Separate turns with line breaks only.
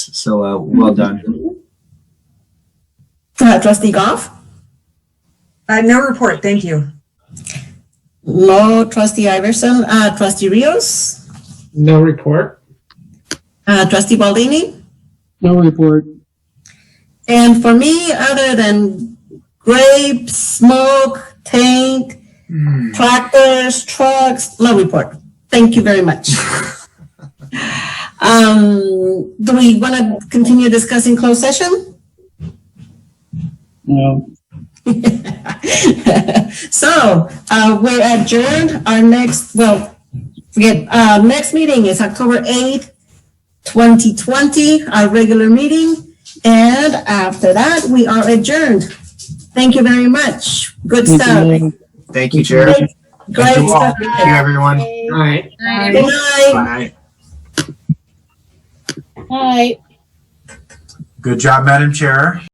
So uh, well done.
Go ahead, trustee Goff.
Uh, no report, thank you.
No, trustee Iverson, uh, trustee Rios,
No report.
uh, trustee Baldini.
No report.
And for me, other than grape, smoke, tank, tractors, trucks, no report. Thank you very much. Um, do we want to continue discussing closed session?
No.
So, uh, we're adjourned. Our next, well, forget, uh, next meeting is October eighth, twenty twenty, our regular meeting. And after that, we are adjourned. Thank you very much. Good
Good
stuff.
night.
Thank you, Jared.
Great-
Thank
Great
you all.
stuff.
Thank you, everyone.
All right.
Good
Bye.
night.
Hi.
Good job, Madam Chair.